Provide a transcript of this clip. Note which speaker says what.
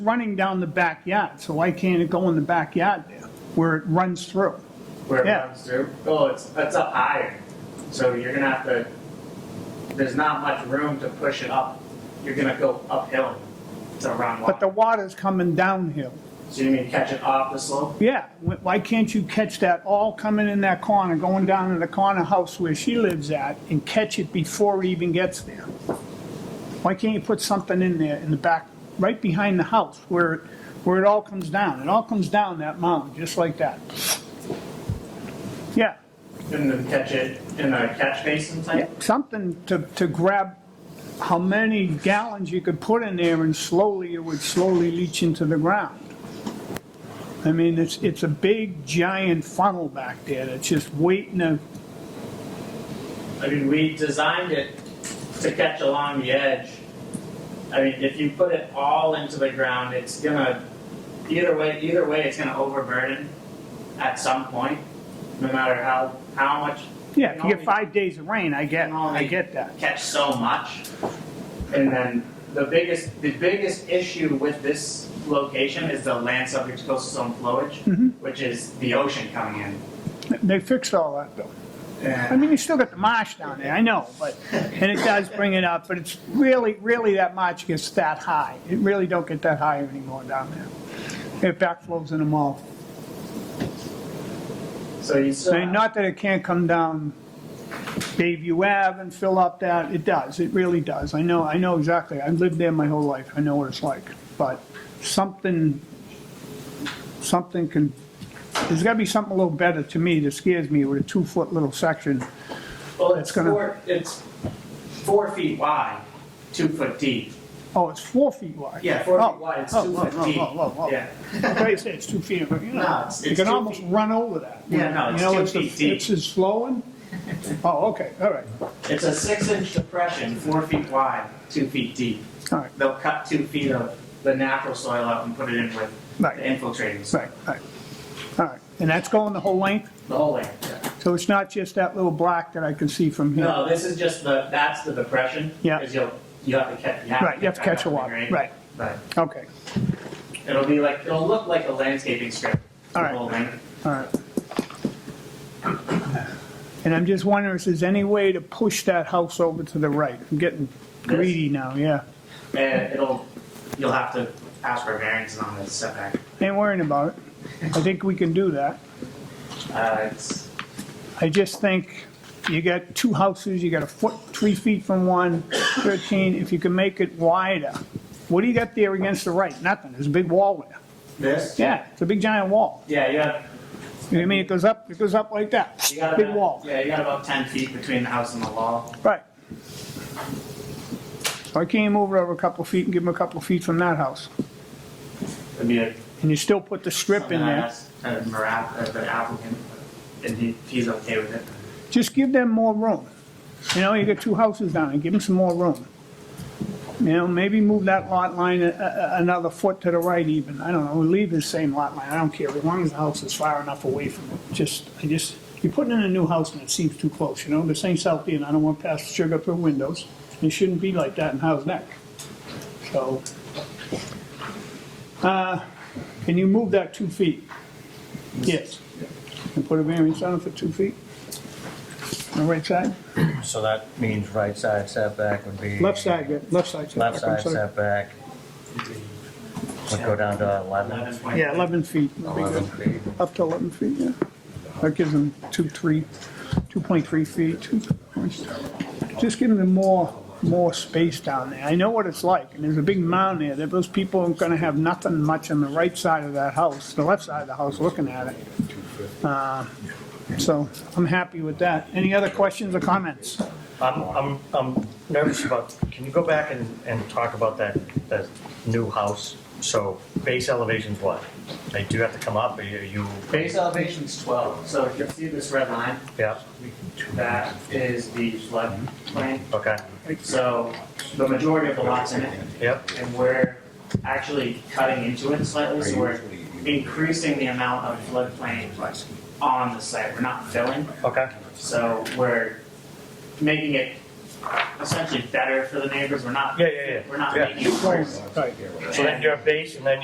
Speaker 1: running down the backyard, so why can't it go in the backyard there, where it runs through?
Speaker 2: where it
Speaker 1: Yeah.
Speaker 2: runs through. Well, it's, it's up higher, so you're gonna have to, there's not much room to push it up. You're gonna go uphill to run
Speaker 1: But the
Speaker 2: water.
Speaker 1: water's coming downhill.
Speaker 2: So you mean catch it off the slope?
Speaker 1: Yeah, wh- why can't you catch that all coming in that corner, going down to the corner house where she lives at, and catch it before it even gets there? Why can't you put something in there, in the back, right behind the house, where, it- where it all comes down? It all comes down that mountain, just like that. Yeah,
Speaker 2: And then catch it in a catch basin
Speaker 1: yeah,
Speaker 2: type?
Speaker 1: something to, to grab how many gallons you could put in there, and slowly, it would slowly leach into the ground. I mean, it's, it's a big giant funnel back there that's just waiting to,
Speaker 2: I mean, we designed it to catch along the edge. I mean, if you put it all into the ground, it's gonna, either way, either way, it's gonna overburden at some point, no matter how, how much
Speaker 1: yeah, if you get five days of rain, I get, I get that.
Speaker 2: catch so much. And then the biggest, the biggest issue with this location is the land subject to coastal zone flowage,
Speaker 1: Mm-hmm.
Speaker 2: which is the ocean coming in.
Speaker 1: They fixed all that though. I
Speaker 2: And
Speaker 1: mean, you still got the marsh down there, I know, but, and it does bring it up, but it's really, really that marsh gets that high. It really don't get that high anymore down there. It backflows in them all.
Speaker 2: so you still.
Speaker 1: I mean, not that it can't come down Bayview Ave and fill up that, it does, it really does. I know, I know exactly, I've lived there my whole life, I know what it's like. But something, something can, there's gotta be something a little better to me that scares me with a two-foot little section.
Speaker 2: Well,
Speaker 1: It's
Speaker 2: it's
Speaker 1: gonna-
Speaker 2: four, it's four feet wide, two foot deep.
Speaker 1: Oh, it's four feet wide.
Speaker 2: Yeah, four
Speaker 1: Oh,
Speaker 2: feet wide, it's
Speaker 1: oh,
Speaker 2: two
Speaker 1: whoa,
Speaker 2: foot
Speaker 1: whoa,
Speaker 2: deep.
Speaker 1: whoa, whoa, whoa.
Speaker 2: Yeah.
Speaker 1: They say it's two feet, but you
Speaker 2: No,
Speaker 1: know,
Speaker 2: it's-
Speaker 1: you
Speaker 2: it's
Speaker 1: can
Speaker 2: two
Speaker 1: almost
Speaker 2: feet.
Speaker 1: run over that.
Speaker 2: Yeah, no, it's
Speaker 1: You know,
Speaker 2: two
Speaker 1: the-
Speaker 2: feet deep.
Speaker 1: It's just flowing? Oh, okay, all right,
Speaker 2: It's a six inch depression, four feet wide, two feet deep.
Speaker 1: all right,
Speaker 2: They'll cut two feet of the natural soil out and put it in with
Speaker 1: Right.
Speaker 2: the infiltrating soil,
Speaker 1: right, right. All right, and that's going the whole length?
Speaker 2: the whole length. yeah.
Speaker 1: So it's not just that little black that I can see from here?
Speaker 2: No, this is just the, that's the depression.
Speaker 1: Yeah.
Speaker 2: Because you'll, you have to catch, you have to.
Speaker 1: Right, you have to
Speaker 2: back
Speaker 1: catch
Speaker 2: up
Speaker 1: a
Speaker 2: the
Speaker 1: water,
Speaker 2: grade.
Speaker 1: right,
Speaker 2: But
Speaker 1: okay,
Speaker 2: it'll be like, it'll look like a landscaping strip.
Speaker 1: All right.
Speaker 2: the whole length.
Speaker 1: all right. And I'm just wondering if there's any way to push that house over to the right? I'm getting greedy now, yeah.
Speaker 2: And it'll, you'll have to ask for variances on the setback.
Speaker 1: Ain't worrying about it. I think we can do that.
Speaker 2: Uh, it's,
Speaker 1: I just think you got two houses, you got a foot, three feet from one, 13, if you can make it wider. What do you got there against the right? Nothing, there's a big wall there.
Speaker 2: this?
Speaker 1: Yeah, it's a big giant wall.
Speaker 2: Yeah, you have,
Speaker 1: You know what I mean, it goes up, it goes up like that,
Speaker 2: you got
Speaker 1: big
Speaker 2: about-
Speaker 1: wall.
Speaker 2: Yeah, you got about ten feet between the house and the wall.
Speaker 1: Right. So I came over over a couple feet and give him a couple feet from that house.
Speaker 2: It'd be a.
Speaker 1: And you still put the strip in
Speaker 2: something I
Speaker 1: there.
Speaker 2: asked, uh, Marat, uh, the applicant, and he, he's okay with it.
Speaker 1: Just give them more room. You know, you got two houses down there, give them some more room. You know, maybe move that lot line a- a- a- another foot to the right even. I don't know, leave the same lot line, I don't care, as long as the house is far enough away from it. Just, I just, you're putting in a new house and it seems too close, you know? This ain't South End, I don't want to pass sugar through windows. It shouldn't be like that in Howe's Neck. So, uh, Can you move that two feet? Yes. And put a variance on it for two feet? On the right side?
Speaker 3: So that means right side setback would be.
Speaker 1: Left side, yeah, left side. setback,
Speaker 3: Left
Speaker 1: I'm
Speaker 3: side
Speaker 1: sorry.
Speaker 3: setback would go down to 11.
Speaker 2: Eleven point-
Speaker 1: Yeah, 11 feet. would be good. Up to 11 feet, yeah. That gives them two, three, 2.3 feet, two, just giving them more, more space down there. I know what it's like, and there's a big mound there, that those people aren't gonna have nothing much on the right side of that house, the left side of the house, looking at it. Uh, So I'm happy with that. Any other questions or comments?
Speaker 3: I'm, I'm, I'm nervous about, can you go back and, and talk about that, that new house? So base elevation's what? They do have to come up, are you- you,
Speaker 2: Base elevation's twelve, so if you see this red line,
Speaker 3: yeah,
Speaker 2: that is the floodplain.
Speaker 3: okay,
Speaker 2: So the majority of the lots in it,
Speaker 3: yep,
Speaker 2: and we're actually cutting into it slightly, so we're increasing the amount of floodplain on the site. We're not filling,
Speaker 3: okay,
Speaker 2: so we're making it essentially better for the neighbors. We're not,
Speaker 3: Yeah, yeah, yeah.
Speaker 2: we're not
Speaker 3: Yeah.
Speaker 2: making it worse.
Speaker 1: Right.
Speaker 3: So then your base and then